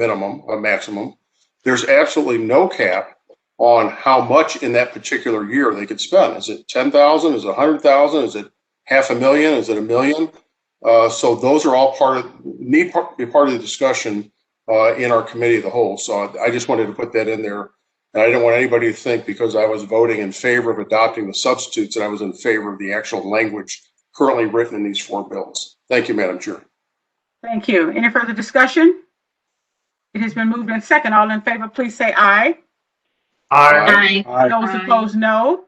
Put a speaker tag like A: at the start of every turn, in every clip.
A: minimum, a maximum. There's absolutely no cap on how much in that particular year they could spend. Is it ten thousand? Is it a hundred thousand? Is it half a million? Is it a million? Uh, so those are all part of, need part, be part of the discussion, uh, in our committee of the whole. So I- I just wanted to put that in there. And I didn't want anybody to think because I was voting in favor of adopting the substitutes that I was in favor of the actual language currently written in these four bills. Thank you, Madam Chair.
B: Thank you. Any further discussion? It has been moved in second. All in favor, please say aye.
C: Aye.
D: Aye.
B: Those
D: Aye.
B: opposed, no.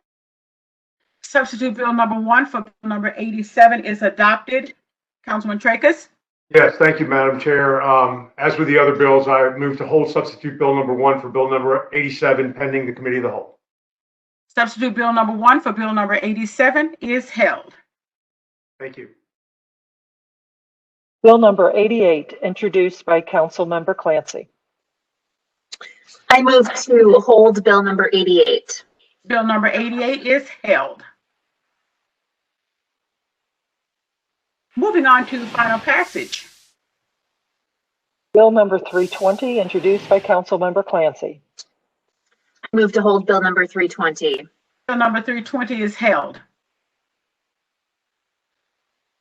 B: Substitute Bill number one for Bill number 87 is adopted. Councilman Tracus?
C: Yes, thank you, Madam Chair. Um, As with the other bills, I move to hold substitute bill number one for bill number 87 pending the committee of the whole.
B: Substitute Bill number one for Bill number 87 is held.
C: Thank you.
E: Bill number 88, introduced by Councilmember Clancy.
D: I move to hold bill number 88.
B: Bill number 88 is held. Moving on to final passage.
E: Bill number 320, introduced by Councilmember Clancy.
D: I move to hold bill number 320.
B: Bill number 320 is held.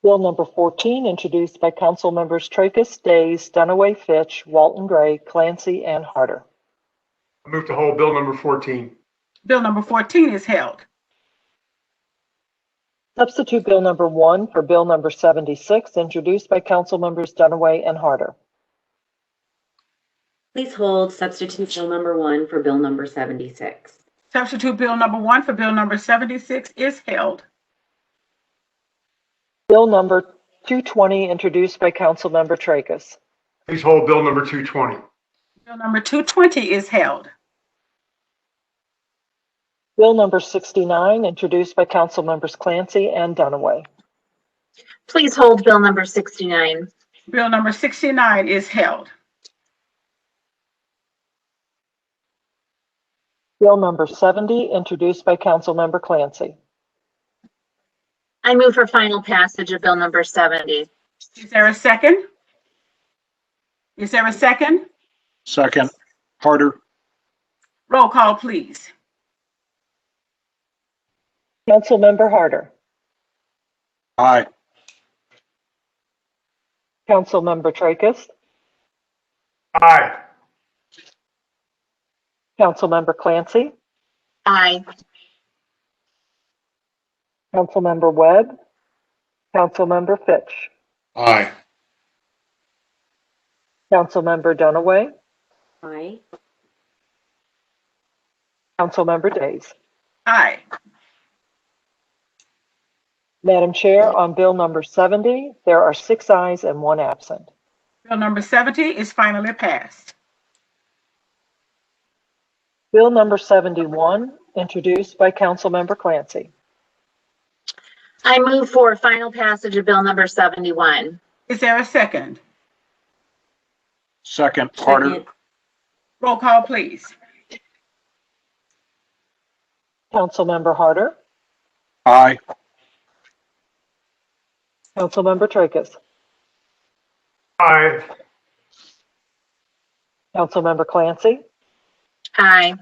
E: Bill number 14, introduced by Councilmembers Tracus, Days, Dunaway, Fitch, Walton Gray, Clancy, and Harder.
C: I move to hold bill number 14.
B: Bill number 14 is held.
E: Substitute Bill number 1 for Bill number 76, introduced by Councilmembers Dunaway and Harder.
F: Please hold substitute bill number one for bill number 76.
B: Substitute Bill number one for Bill number 76 is held.
E: Bill number 220, introduced by Councilmember Tracus.
C: Please hold bill number 220.
B: Bill number 220 is held.
E: Bill number 69, introduced by Councilmembers Clancy and Dunaway.
D: Please hold bill number 69.
B: Bill number 69 is held.
E: Bill number 70, introduced by Councilmember Clancy.
D: I move for final passage of bill number 70.
B: Is there a second? Is there a second?
G: Second, Harder,
B: Roll call, please.
E: Councilmember Harder.
G: aye.
E: Councilmember Tracus.
C: Aye.
E: Councilmember Clancy.
D: Aye.
E: Councilmember Webb. Councilmember Fitch.
A: Aye.
E: Councilmember Dunaway.
F: Aye.
E: Councilmember Days.
B: Aye.
E: Madam Chair, on Bill number 70, there are six ayes and one absent.
B: Bill number 70 is finally passed.
E: Bill number 71, introduced by Councilmember Clancy.
D: I move for final passage of bill number 71.
B: Is there a second?
G: Second, Harder,
F: Second,
B: Roll call, please.
E: Councilmember Harder.
G: aye.
E: Councilmember Tracus.
C: Aye.
E: Councilmember Clancy.
D: Aye.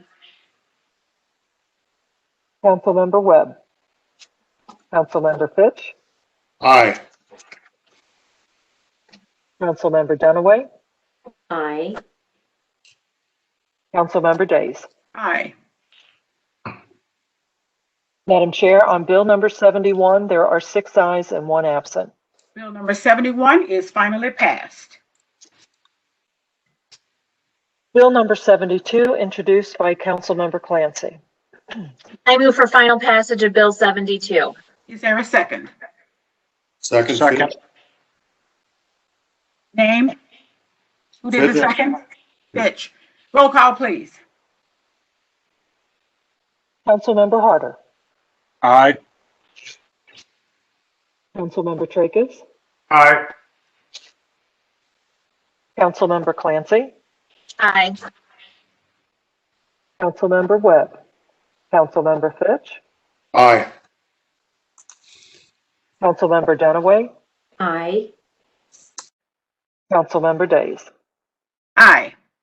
E: Councilmember Webb. Councilmember Fitch.
A: Aye.
E: Councilmember Dunaway.
F: Aye.
E: Councilmember Days.
B: Aye.
E: Madam Chair, on Bill number 71, there are six ayes and one absent.
B: Bill number 71 is finally passed.
E: Bill number 72, introduced by Councilmember Clancy.
D: I move for final passage of bill 72.
B: Is there a second?
A: Second.
G: Second,
B: Name? Who did the
A: Fitch.
B: second? Fitch. Roll call, please.
E: Councilmember Harder.
G: aye.
E: Councilmember Tracus.
C: Aye.
E: Councilmember Clancy.
D: Aye.
E: Councilmember Webb. Councilmember Fitch.
A: Aye.
E: Councilmember Dunaway.
F: Aye.
E: Councilmember Days.
B: Aye.